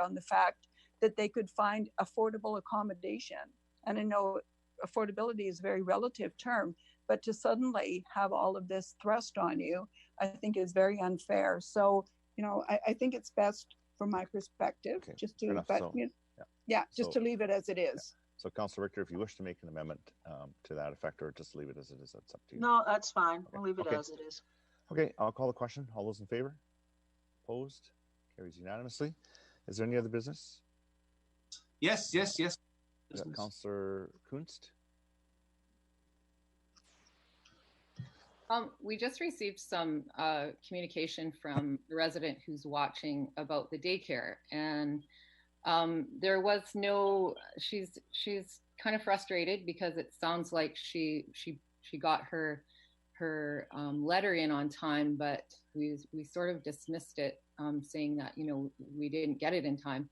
on the fact that they could find affordable accommodation. And I know affordability is a very relative term, but to suddenly have all of this thrust on you, I think is very unfair. So, you know, I, I think it's best from my perspective, Okay, just fair to, enough. but, So, you yeah. yeah, just So- to leave it as it is. So Councillor Richter, if you wish to make an amendment um, to that effect or just leave it as it is, that's up to you. No, that's fine. We'll leave it Okay. as it is. Okay, I'll call the question. All those in favor? Opposed? Carries unanimously. Is there any other business? Yes, yes, yes. Is that Business. Councillor Kunst? Um, we just received some uh, communication from a resident who's watching about the daycare, and um, there was no. She's she's kind of frustrated because it sounds like she she she got her her um, letter in on time, but we we sort of dismissed it, um, saying that you know we didn't get it in time.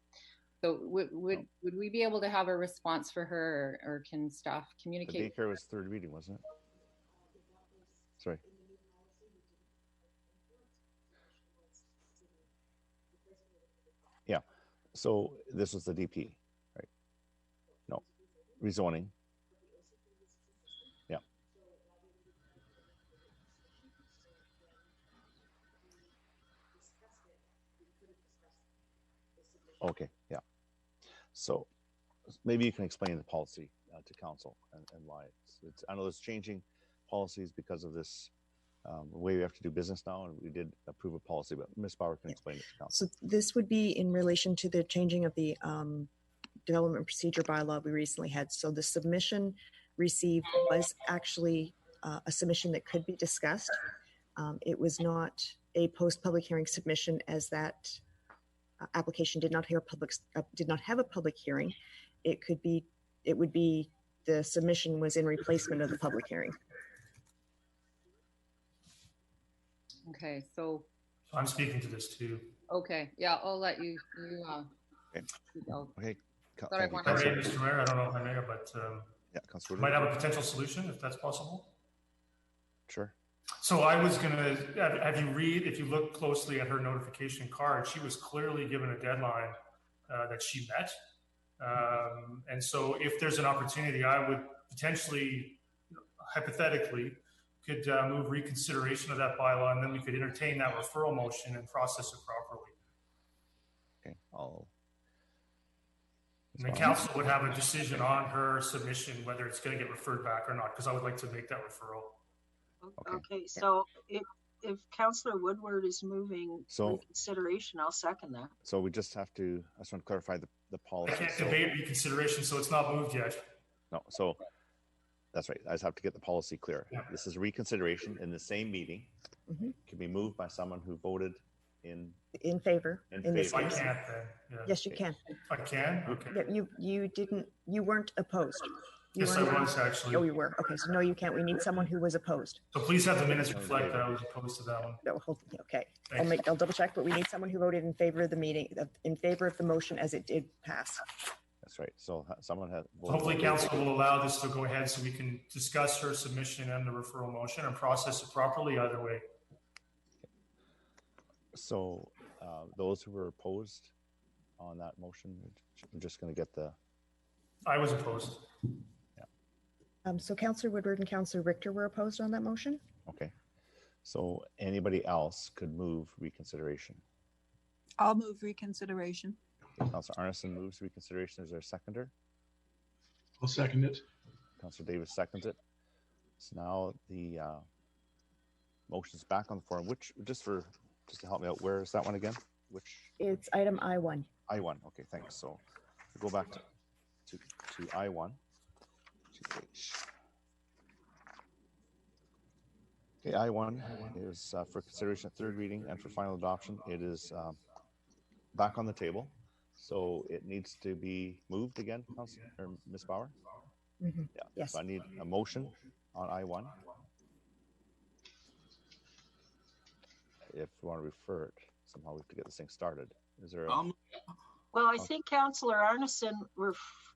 So would would would we be able to have a response for her, or, or can staff The communicate? daycare was third reading, wasn't it? Sorry. Yeah, so this was the DP, right? No, rezoning. Yeah. Okay, yeah. So maybe you can explain the policy uh, to council and, and why it's, it's, I know it's changing policies because of this um, way we have to do business now, and we did approve a policy, but Ms. Bauer can explain it to council. So this would be in relation to the changing of the um, development procedure bylaw we recently had. So the submission received was actually uh, a submission that could be discussed. Um, It was not a post-public hearing submission as that uh, application did not hear public, uh, did not have a public hearing. It could be, it would be, the submission was in replacement of the public hearing. Okay, so. I'm speaking to this too. Okay, yeah, I'll let you, you, uh, Okay. you go. Okay. Co- Sorry, thank you, one- Sorry, Councillor- Mr. Mayor, I don't know if I'm there, but um, Yeah, Councillor. might have a Whittier. potential solution if that's possible. Sure. So I was gonna have, have you read, if you look closely at her notification card, she was clearly given a deadline uh, that she met. Um, and so if there's an opportunity, I would potentially, hypothetically, could uh, move reconsideration of that bylaw and then we could entertain that referral motion and process it properly. Okay, I'll. And the council would have a decision on her submission, whether it's going to get referred back or not, because I would like to make that referral. Okay. Okay, so if, if Counselor Woodward is moving So- reconsideration, I'll second that. So we just have to, I just want to clarify the, the I policy. can't So- debate reconsideration, so it's not moved yet. No, so that's right. I just have to get the policy clear. Yeah. This is reconsideration in the same meeting. Mhm. Can be moved by someone who voted in, In favor? In this If I favor. can't, case. then, yeah. Yes, you can. If I can, okay. But you, you didn't, you weren't opposed. You Yes, I weren't- was Oh, actually. you were. Okay, so no, you can't. We need someone who was opposed. So please have the minutes reflect that I was opposed to that one. No, hold, okay. I'll Thanks. make, I'll double check, but we need someone who voted in favor of the meeting, of- in favor of the motion as it did pass. that's right. So ha- someone had. voted Hopefully in council will allow this to go ahead so we can discuss her submission and the referral motion and process it properly either way. So uh, those who were opposed on that motion, I'm just going to get the, I was opposed. Um, so Counselor Woodward and Counselor Richter were opposed on that motion? okay. So anybody else could move reconsideration. I'll move reconsideration. Counselor Arneson moves reconsideration. Is there a seconder? I'll second it. Counselor Davis seconds it. So now the uh, motion's back on the floor, which, just for, just to help me out, where is that one again? Which, It's item I one. I one, okay, thanks. So we'll go back to, to, to I one. Okay, I one is uh, for consideration at third reading and for final adoption. It is um, back on the table. So it needs to be moved again, Council, or Ms. Bauer? Mhm. Yeah. Yes. So I need a motion on I one. If you want to refer it, somehow we have to get this thing started. Is there? a- I'll move- Well, I Okay. think Counselor Arneson, we're f-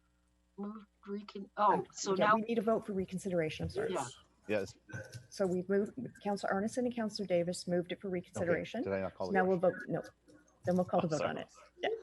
moved recon, oh, so Yeah, now, We need a vote for reconsideration, I'm sorry. yeah, Yes. okay, So we moved, Counselor Arneson and Counselor Davis moved it for reconsideration. Did I not So call it? Now we'll vote, no, then we'll call Oh, the vote sorry. on it.